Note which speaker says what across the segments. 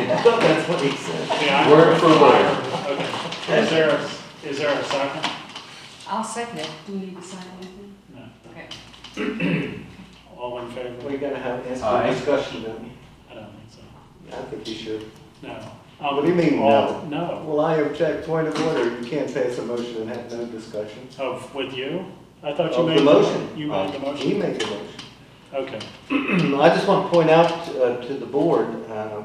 Speaker 1: thought that's what he said.
Speaker 2: Yeah, I-
Speaker 1: Word for word.
Speaker 2: Okay. Is there a, is there a second?
Speaker 3: I'll second it. Do we need to sign anything?
Speaker 2: No.
Speaker 3: Okay.
Speaker 2: All in favor?
Speaker 4: We're gonna have, ask for
Speaker 1: Aye.
Speaker 4: discussion, don't we?
Speaker 2: I don't think so.
Speaker 4: I think we should.
Speaker 2: No. Uh,
Speaker 4: What do you mean, no?
Speaker 2: All- No,
Speaker 4: Well, I object, point of order, you can't pass a motion and have no discussion.
Speaker 2: of, with you? I thought you
Speaker 4: Of the
Speaker 2: made.
Speaker 4: motion. Oh,
Speaker 2: You made the
Speaker 4: We
Speaker 2: motion?
Speaker 4: make a motion.
Speaker 2: Okay.
Speaker 4: I just want to point out uh, to the board uh,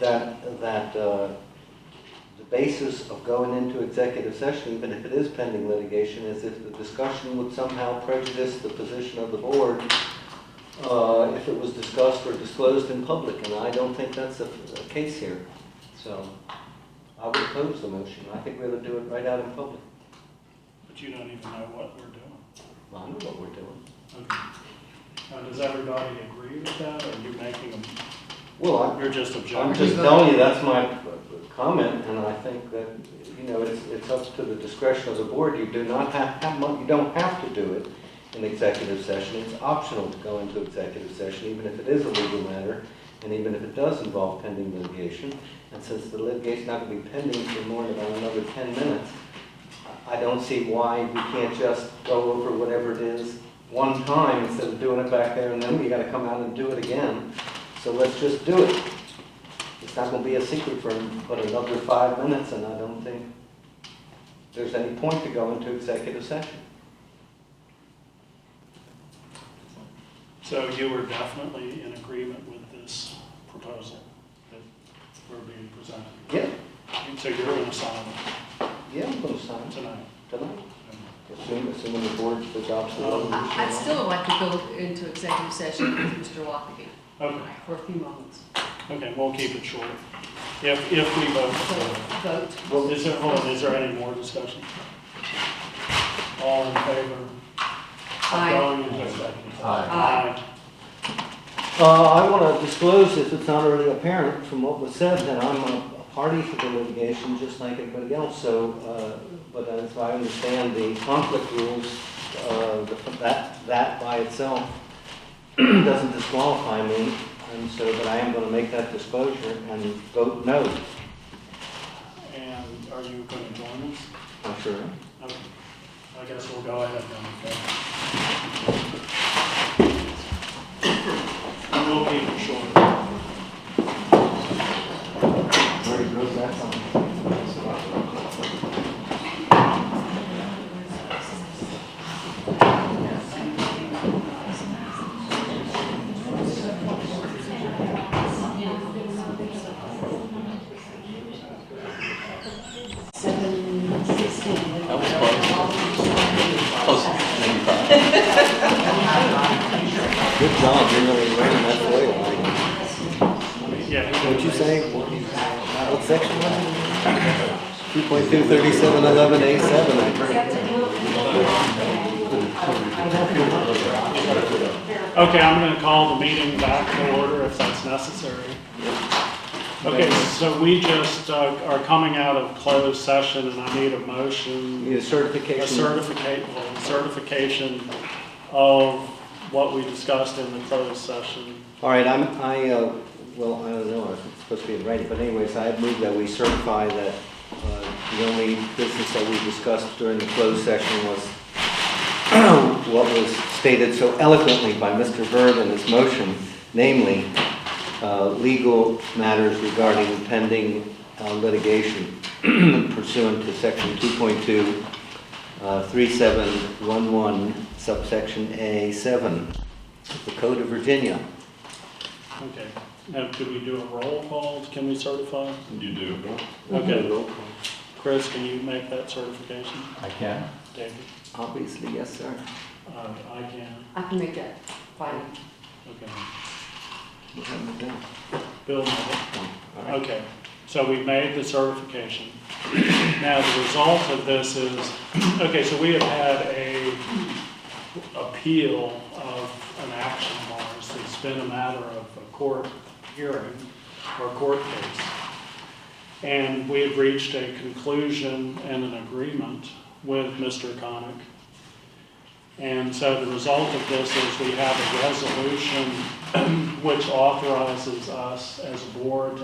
Speaker 4: that, that uh, the basis of going into executive session, even if it is pending litigation, is if the discussion would somehow prejudice the position of the board uh, if it was discussed or disclosed in public, and I don't think that's the the case here. So I would oppose the motion. I think we ought to do it right out in public.
Speaker 2: But you don't even know what we're doing.
Speaker 4: Well, I know what we're doing.
Speaker 2: Okay. Now, does everybody agree with that, or you making them,
Speaker 4: Well, I,
Speaker 2: you're just
Speaker 4: I'm
Speaker 2: objecting?
Speaker 4: just telling you, that's my comment, and I think that, you know, it's, it's up to the discretion of the board. You do not have, have mon- you don't have to do it in executive session. It's optional to go into executive session, even if it is a legal matter, and even if it does involve pending litigation. And since the litigation's not gonna be pending for more than about another ten minutes, I I don't see why we can't just go over whatever it is one time instead of doing it back there, and then we gotta come out and do it again. So let's just do it. It's not gonna be a secret for, but another five minutes, and I don't think there's any point to go into executive session.
Speaker 2: So you were definitely in agreement with this proposal that we're being presented?
Speaker 4: Yeah,
Speaker 2: So you're in assignment
Speaker 4: yeah, I'm gonna sign it
Speaker 2: tonight?
Speaker 4: tonight, assuming, assuming the board adopts the
Speaker 2: Um,
Speaker 4: resolution.
Speaker 3: I- I'd still like to go into executive session with Mr. Lockaby
Speaker 2: Okay,
Speaker 3: for a few moments.
Speaker 2: okay, we'll keep it short. If, if we vote
Speaker 3: So,
Speaker 2: for it.
Speaker 3: vote.
Speaker 2: Well, is there, hold on, is there any more discussion? All in favor?
Speaker 3: Aye.
Speaker 2: Going into executive.
Speaker 3: Aye.
Speaker 4: Uh, I want to disclose, if it's not already apparent from what was said, that I'm a a party to the litigation, just like everybody else, so, uh, but as I understand the conflict rules, uh, the- that, that by itself doesn't disqualify me, and so, but I am going to make that disclosure and vote no,
Speaker 2: And are you going to join us?
Speaker 4: I'm sure.
Speaker 2: Okay. I guess we'll go ahead then, okay? We'll keep it short.
Speaker 4: Very good, that's on.
Speaker 5: Seven sixteen.
Speaker 6: That was close. Close, ninety-five.
Speaker 4: Good job, you're really running that way.
Speaker 2: Yeah.
Speaker 4: What'd you say? What section was it? Two point two thirty-seven eleven A seven, I think.
Speaker 2: Okay, I'm going to call the meeting back to order if that's necessary. Okay, so we just uh, are coming out of closed session and I need a motion.
Speaker 4: Need a certification.
Speaker 2: a certificate, well, certification of what we discussed in the closed session.
Speaker 4: All right, I'm, I, uh, well, I don't know, it's supposed to be in writing, but anyways, I move that we certify that uh, the only business that we discussed during the closed session was what was stated so eloquently by Mr. Verb in his motion, namely, uh, legal matters regarding pending uh, litigation pursuant to section 2.2, uh, 3711 subsection A7 of the Code of Virginia.
Speaker 2: Okay, now could we do a roll call? Can we certify?
Speaker 1: You do.
Speaker 2: Okay, Chris, can you make that certification?
Speaker 6: I can.
Speaker 2: David?
Speaker 4: Obviously, yes, sir.
Speaker 2: Uh, I can,
Speaker 3: I can make that final.
Speaker 2: okay.
Speaker 4: We haven't done
Speaker 2: Bill, no.
Speaker 4: one. All right.
Speaker 2: Okay, so we made the certification. Now, the result of this is, okay, so we have had a appeal of an action of ours. It's been a matter of a court hearing or court case. And we have reached a conclusion and an agreement with Mr. Conick. And so the result of this is we have a resolution which authorizes us as a board